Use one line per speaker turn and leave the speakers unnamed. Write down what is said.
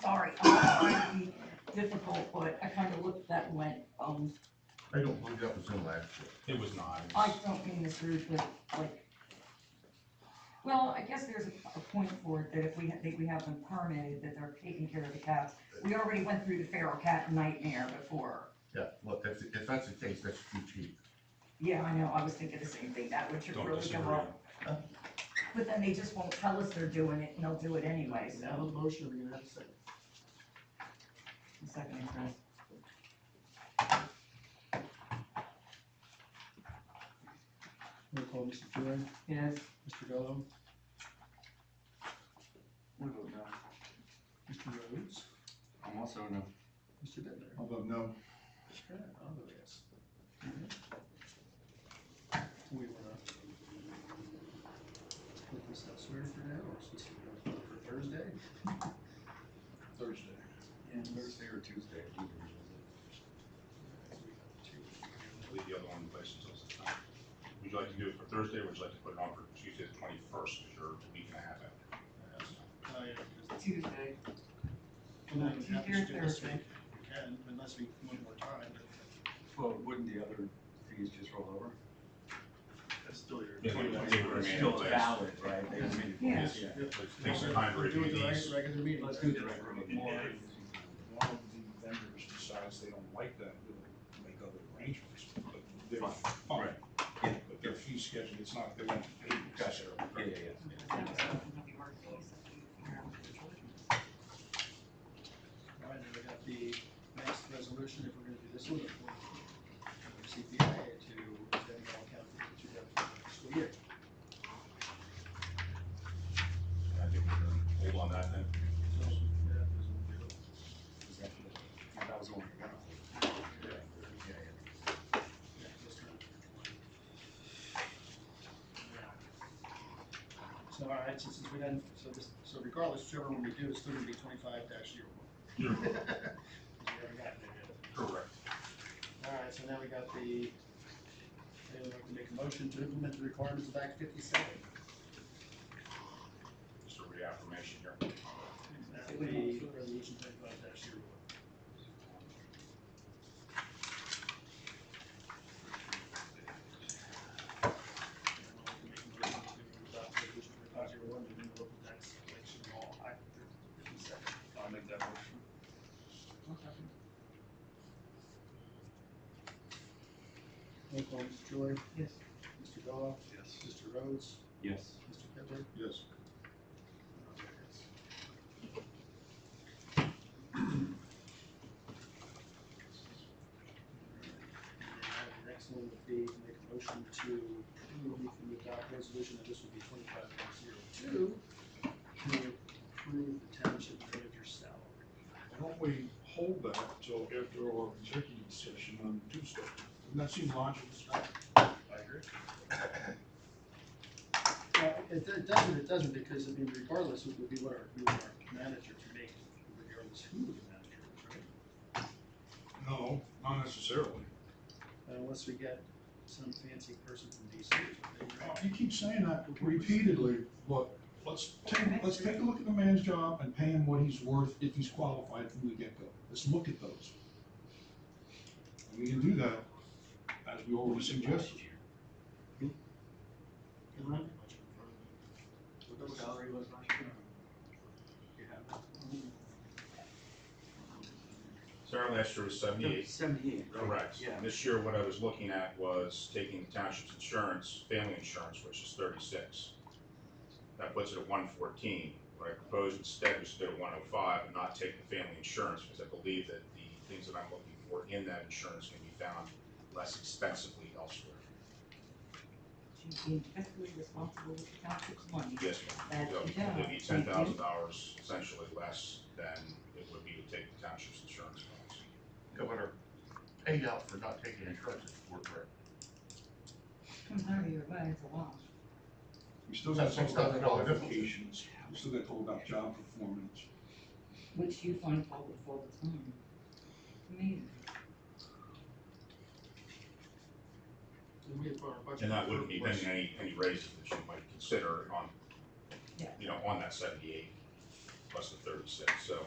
sorry, I'm not trying to be difficult, but I kind of looked at that and went, um,
I don't believe that was in last year.
It was not. It
I
was-
don't mean this rude, but like, well, I guess there's a, a point for it, that if we, ha- think we have them permitted, that they're taking care of the cats. We already went through the feral cat nightmare before.
Yeah, look, that's, if that's the case, that's too cheap.
Yeah, I know, I was thinking the same thing, that would should
Don't
really
disagree.
go up. But then they just won't tell us they're doing it, and they'll do it anyway,
We have a
so.
motion, we're gonna have a second.
Second, Chris.
Roll call, Mr. Fury,
Yes,
Mr. Gallow,
I vote no.
Mr. Rhodes,
I'm also a no.
Mr. Bittner.
Oh,
I'll vote no.
Sure, I'll go yes. We wanna put this elsewhere for now, or since we're going for Thursday?
Thursday.
And
Thursday or Tuesday.
Leave the other one in place until such time. Would you like to do it for Thursday, or would you like to put it on for Tuesday the twenty-first, because you're a week and a half out?
Oh, yeah, because
Tuesday.
can I have
Tuesday or
to do this
Thursday?
week? We can, unless we need more time, but
Well, wouldn't the other fees just roll over?
that's still your.
Yeah, we-
It's
they were made
Still
in place.
valid, right? They were made in place.
Yes. Take some time to
We're doing
review
the
these.
reg- regular meeting.
Let's do the regular
If
meeting.
One of the vendors decides they don't like that, we'll make other arrangements, but they're fine.
Right. Yeah.
But their fee schedule, it's not, they won't pay
Gotcha.
necessarily.
Yeah, yeah, yeah.
All right, then we got the next resolution, if we're gonna do this one, if we're from CPA to extend all county to the school year.
I think we're gonna hold on that then.
Is that the- yeah, That was the one we got. Yeah, yeah, yeah.
Yeah, this time. So, all right, since we done, so this, so regardless, whichever one we do, it's still gonna be twenty-five dash zero one.
You're
We haven't gotten there yet.
correct.
All right, so now we got the, anyone like to make a motion to implement the requirements of Act fifty-seven?
Just a reaffirmation here.
That would be resolution twenty-five dash zero one. Anyone like to make a motion to adopt resolution twenty-five zero one, the new local tax collection law, Act fifty-seven?
I'll make that motion.
Roll call, Mr. Joy,
Yes.
Mr. Gallow,
Yes.
Mr. Rhodes,
Yes.
Mr. Bittner.
Yes.
And The next one would be to make a motion to approve, if we adopt resolution, that this would be twenty-five point zero two, to approve the township manager's salary.
Why don't we hold that till after our executive session on Tuesday? Doesn't that seem logical, Scott?
I agree. Well, it, it doesn't, it doesn't, because I mean regardless, it would be what our, we want our manager to make, regardless who the manager is, right?
No, not necessarily.
Unless we get some fancy person from DC or something, right?
You keep saying that repeatedly, look, let's take, let's take a look at the man's job and pay him what he's worth if he's qualified from the get-go. Let's look at those. And we can do that, as we already suggested.
Remind me.
What the salary was last year? You have that?
Sarah last year was seventy-eight
Seventy-eight. right?
Correct.
Yeah.
And this year, what I was looking at was taking the township's insurance, family insurance, which is thirty-six. That puts it at one fourteen. What I proposed instead was to go to one oh five and not take the family insurance, because I believe that the things that I'm looking for in that insurance can be found less expensively elsewhere.
She's being fiscally responsible with the township's money.
Yes, ma'am.
That's
So
the job.
It'd be ten thousand dollars essentially less than it would be to take the township's insurance policy.
Governor, paid out for not taking insurance is worth it.
Comes out of your money, it's a wash.
We still got to talk about
That's all.
qualifications, we still got to talk about job performance.
Which you find fault with all the time. Amazing.
And we have our budget.
And that wouldn't be then any, any raises that you might consider on,
Yeah.
you know, on that seventy-eight plus the thirty-six, so